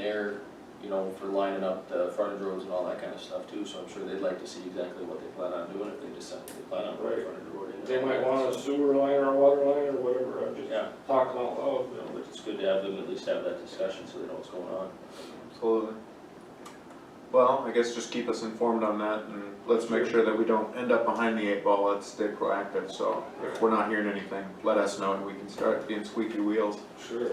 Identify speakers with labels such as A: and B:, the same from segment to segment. A: there, you know, for lining up the frontage roads and all that kind of stuff too, so I'm sure they'd like to see exactly what they plan on doing if they decide they plan on putting a
B: Right.
A: frontage road in.
B: They might want a sewer line or a water line or whatever, I'm just
A: Yeah,
B: talking out
A: you
B: loud, you
A: know,
B: know.
A: but it's good to have them at least have that discussion so they know what's going on.
C: Absolutely. Well, I guess just keep us informed on that and let's make sure that we don't end up behind the eight ball, let's stay proactive, so if we're not hearing anything, let us know and we can start being squeaky wheels.
B: Sure.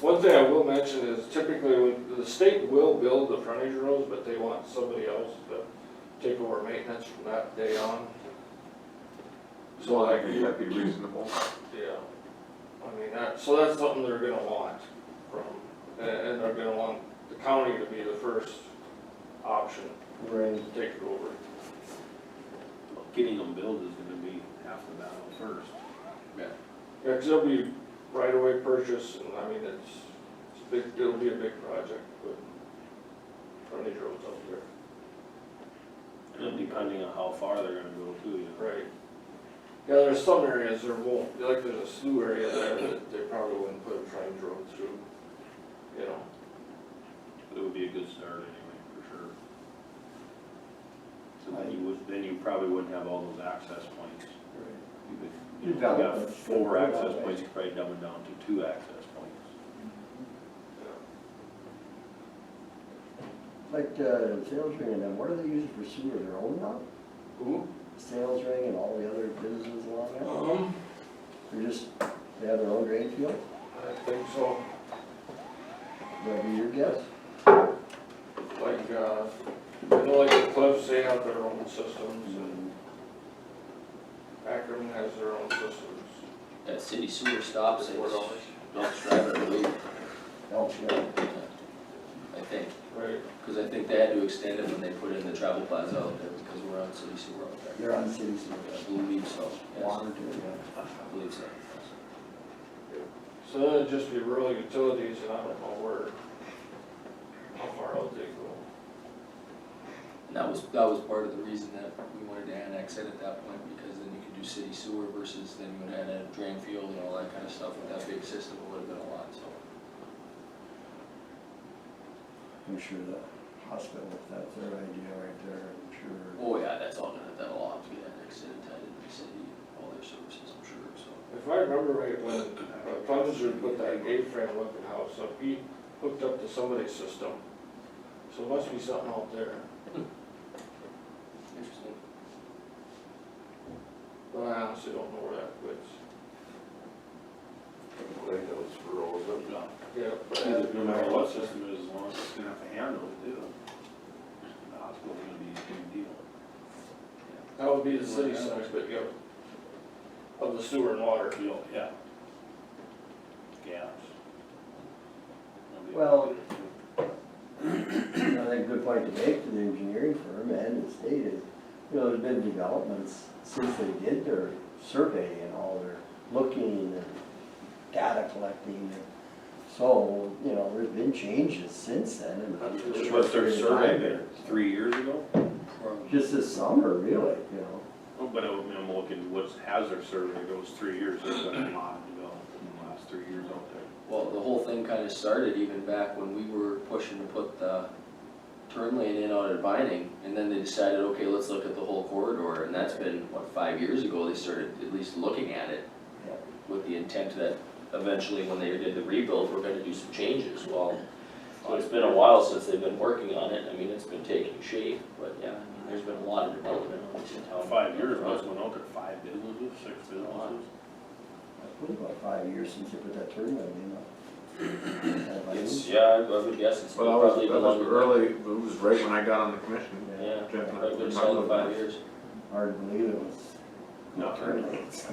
B: One thing I will mention is typically, when- the state will build the frontage roads, but they want somebody else to take over maintenance from that day on. So like,
C: That'd be- that'd be reasonable.
B: yeah, I mean, that, so that's something they're gonna want from, and, and they're gonna want the county to be the first option to
D: Right.
B: take it over.
E: Getting them built is gonna be half the battle first.
B: Yeah, it it'll be right away purchase, and I mean, it's, it's a big, it'll be a big project, but frontage roads up there,
E: And depending on how far they're gonna go too, you know.
B: right? Yeah, there's some areas there won't, like there's a slew area there that they probably wouldn't put a frontage road through, you know?
E: It would be a good start anyway, for sure. So then you would, then you probably wouldn't have all those access points. You could, you know, if you got four access points, you could probably dumb it down to two access points.
B: yeah.
D: Like, uh, sales ring and them, what are they using for sewer, their own route?
B: Ooh.
D: Sales ring and all the other businesses along there?
B: Um,
D: They're just, they have their own drain field,
B: I think so,
D: that'd be your guess?
B: like, uh, I know like the Cliffs, they have their own systems, and Akron has their own systems.
A: That city sewer stops at Dump's Drive, I believe,
D: Elks Road.
A: I think,
B: Right,
A: because I think they had to extend it when they put in the travel plaza out there because we're on city sewer out there.
D: they're on city sewer,
A: I believe so, yes,
D: water too, yeah.
A: I believe so.
B: So that'd just be rural utilities, and I don't know where, how far out they go.
A: And that was, that was part of the reason that we wanted to annex it at that point, because then you could do city sewer versus then you would have had drain field and all that kind of stuff with that big system, it would have been a lot, so.
D: I'm sure the hospital, if that's their idea right there, I'm sure.
A: Oh yeah, that's all gonna, that'll all have to be annexed and tied into the city, all their services, I'm sure, so.
B: If I remember right, when uh, Clemenser put that A-frame looking house up, he hooked up to somebody's system. So it must be something out there.
A: Interesting.
B: But I honestly don't know where that quits. Yeah, but
E: Either
B: it
E: No matter what system it is, as long as it's gonna have to handle it too. The hospital's gonna be a big deal.
B: That would be the city center, but yeah, of the sewer and water.
E: Deal, yeah. Gas. That'll be a
D: Well-
E: big deal.
D: I think a good point to make to the engineering firm and the state is, you know, there's been developments since they did their survey and all their looking and data collecting. So, you know, there's been changes since then and.
E: Just what's their survey been, three years ago?
D: Just this summer, really, you know.
E: Oh, But I'm I'm looking, what's, has their survey, goes three years, there's been a lot developed in the last three years out there.
A: Well, the whole thing kind of started even back when we were pushing to put the turn lane in out at Vining, and then they decided, okay, let's look at the whole corridor, and that's been, what, five years ago, they started at least looking at it
D: Yeah.
A: with the intent that eventually, when they did the rebuild, we're gonna do some changes, well, so it's been a while since they've been working on it, I mean, it's been taking shape, but yeah, I mean, there's been a lot of development on this in town.
E: Five years, I was going out there, five businesses, six businesses.
D: It's been about five years since they put that tournament in, you know. Kind of like-
A: It's, yeah, I would guess it's
C: Well, that was,
A: probably
C: that
A: been
C: was
A: longer.
C: early, it was right when I got on the commission.
A: Yeah,
C: Jeff and I
A: probably
C: were
A: been
C: talking
A: solid
C: about
A: five
C: that.
A: years.
D: Hard to believe it was.
E: No.
D: Tournaments.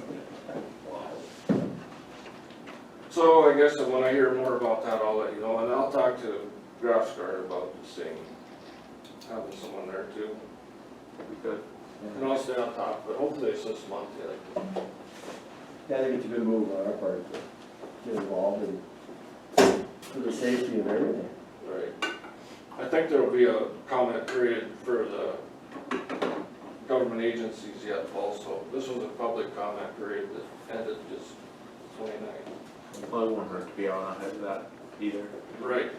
B: So I guess that when I hear more about that, I'll let you know, and I'll talk to Grafskar about this thing, having someone there too.
C: That'd be good.
B: And I'll stay on top, but hopefully it's this month, yeah.
D: Yeah, I think it's a good move on our part to get involved and for the safety of everything.
B: Right. I think there'll be a comment period for the government agencies yet also. This was a public comment period that ended just 29th.
C: Well, it won't hurt to be on ahead of that either.
B: Right.